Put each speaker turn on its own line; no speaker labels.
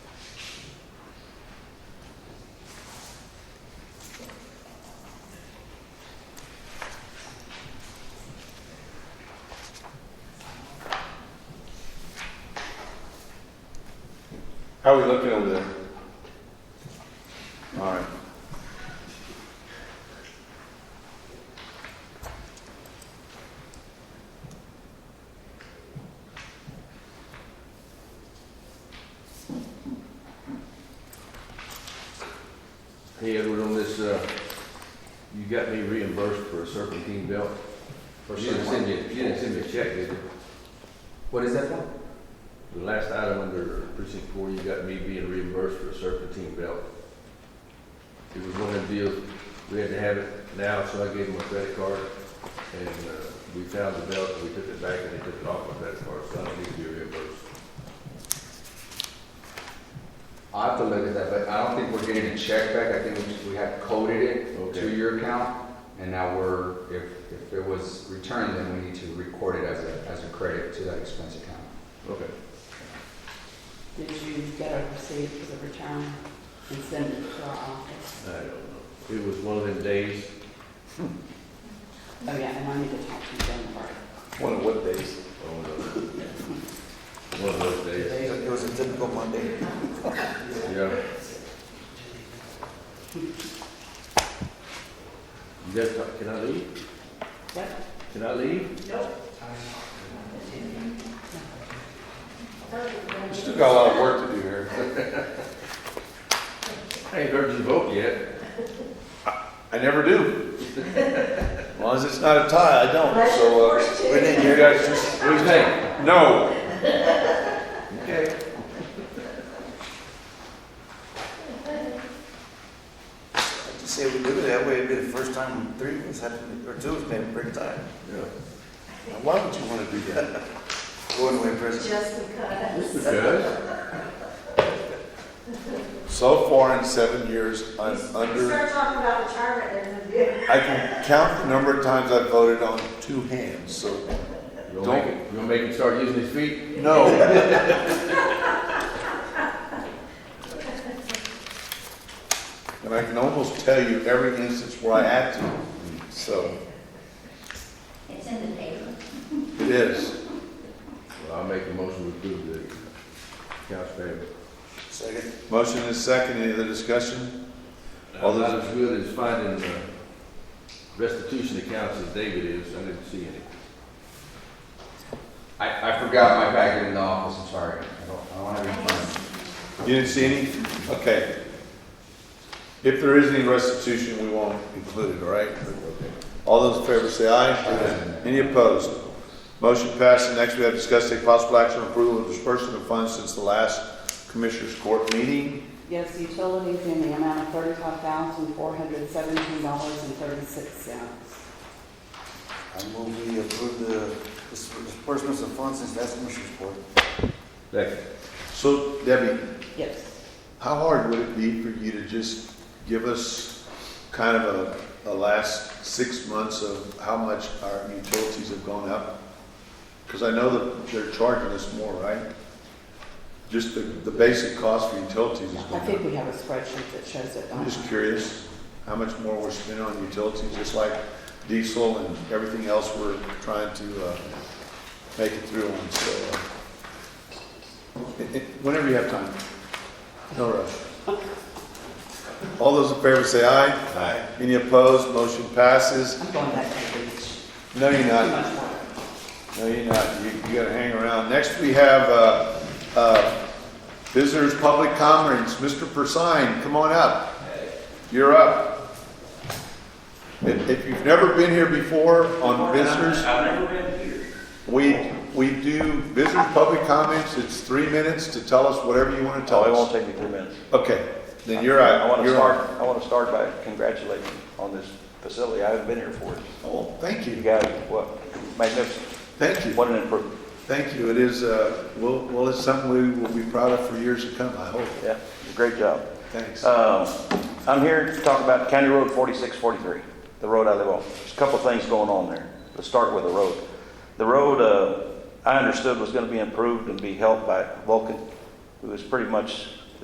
How are we looking over there? All right.
Hey, Edward, on this, uh, you got me reimbursed for a serpentine belt.
For
You didn't
certain-
send me, you didn't send me a check, did you?
What is that for?
The last item under precinct four, you got me being reimbursed for a serpentine belt. It was one of the deals, we had to have it now, so I gave them a credit card, and, uh, we found the belt, and we took it back, and they took it off my credit card, so I don't need to be reimbursed.
I have to look at that, but I don't think we're getting a check back. I think we just- we have coded it to
Okay.
your account. And now we're, if, if it was returned, then we need to record it as a, as a credit to that expense account.
Okay.
Did you get a receipt for the return and send it to our office?
I don't know. It was one of them days,
Oh, yeah, and I need to talk to you on
One of what days?
oh, no. One of those days,
It was a typical Monday.
yeah. You guys, can I leave?
What?
Can I leave?
We Still got a lot of work to do here.
I ain't heard you vote yet.
I never do. As long as it's not a tie, I don't, so, uh,
We didn't
you
hear
guys just,
What do you think?
no.
Okay.
to say we do it that way. It'd be the first time three of us had, to- or two of us made a break time.
Yeah.
Why would you want to do that?
Going away present.
Just
Just
because.
because.
So far in seven years, I'm
You
under,
start talking about retirement, there's gonna be a
I can count the number of times I've voted on two hands, so,
You gonna make it, you gonna make him start using his feet?
no. And I can almost tell you every instance where I had to, so,
It's in the paper.
it is.
Well, I'll make a motion to approve the accounts payable.
Second.
Motion is second, any other discussion? All
All
those-
that's good is finding uh, restitution accounts as David is. I didn't see any.
I, I forgot my bag in the office, I'm sorry. I don't, I don't want to
I
return. it.
guess.
You didn't see any? Okay. If there is any restitution, we won't include it, all right? All those in favor say aye. Any opposed? Motion passed, and next we have discussed take possible action on approval of disbursement of funds since the last Commissioners Court meeting.
Yes, utilities in the amount of thirty-five thousand, four hundred seventeen dollars and thirty-six cents.
I move we approve the uh, disbursements of funds since last commissioner's board.
Second.
So Debbie,
Yes.
how hard would it be for you to just give us kind of a, a last six months of how much our utilities have gone up? Because I know that they're charging us more, right? Just the, the basic cost for utilities is
I
going
think
up.
we have a spreadsheet that shows it.
I'm just curious how much more we're spending on utilities, just like diesel and everything else we're trying to, uh, make it through on, so. uh, it- it- Whenever you have time, no rush. All those in favor say aye. Aye. Any opposed, motion passes.
I'm going back to the beach.
No, you're
Too
not.
much water.
No, you're not. You, you gotta hang around. Next, we have, uh, uh, visitors' public comments. Mr. Persine, come on up. You're up. If, if you've never been here before on visitors,
I've never been here.
we, we do visitors' public comments. It's three minutes to tell us whatever you wanna tell
Oh, it won't
us.
take me three minutes.
Okay, then you're out.
I want to
You're out.
start, I want to start by congratulating you on this facility. I haven't been here for it.
Oh, thank
You
you.
guys, what, magnificent.
Thank you.
What an improvement.
Thank you. It is, uh, well, well, it's something we will be proud of for years to come, I hope.
Yeah, great job.
Thanks.
Um, I'm here to talk about County Road 4643, the road I live on. There's a couple of things going on there. Let's start with the road. The road, uh, I understood was going to be improved and be helped by Vulcan, who is pretty much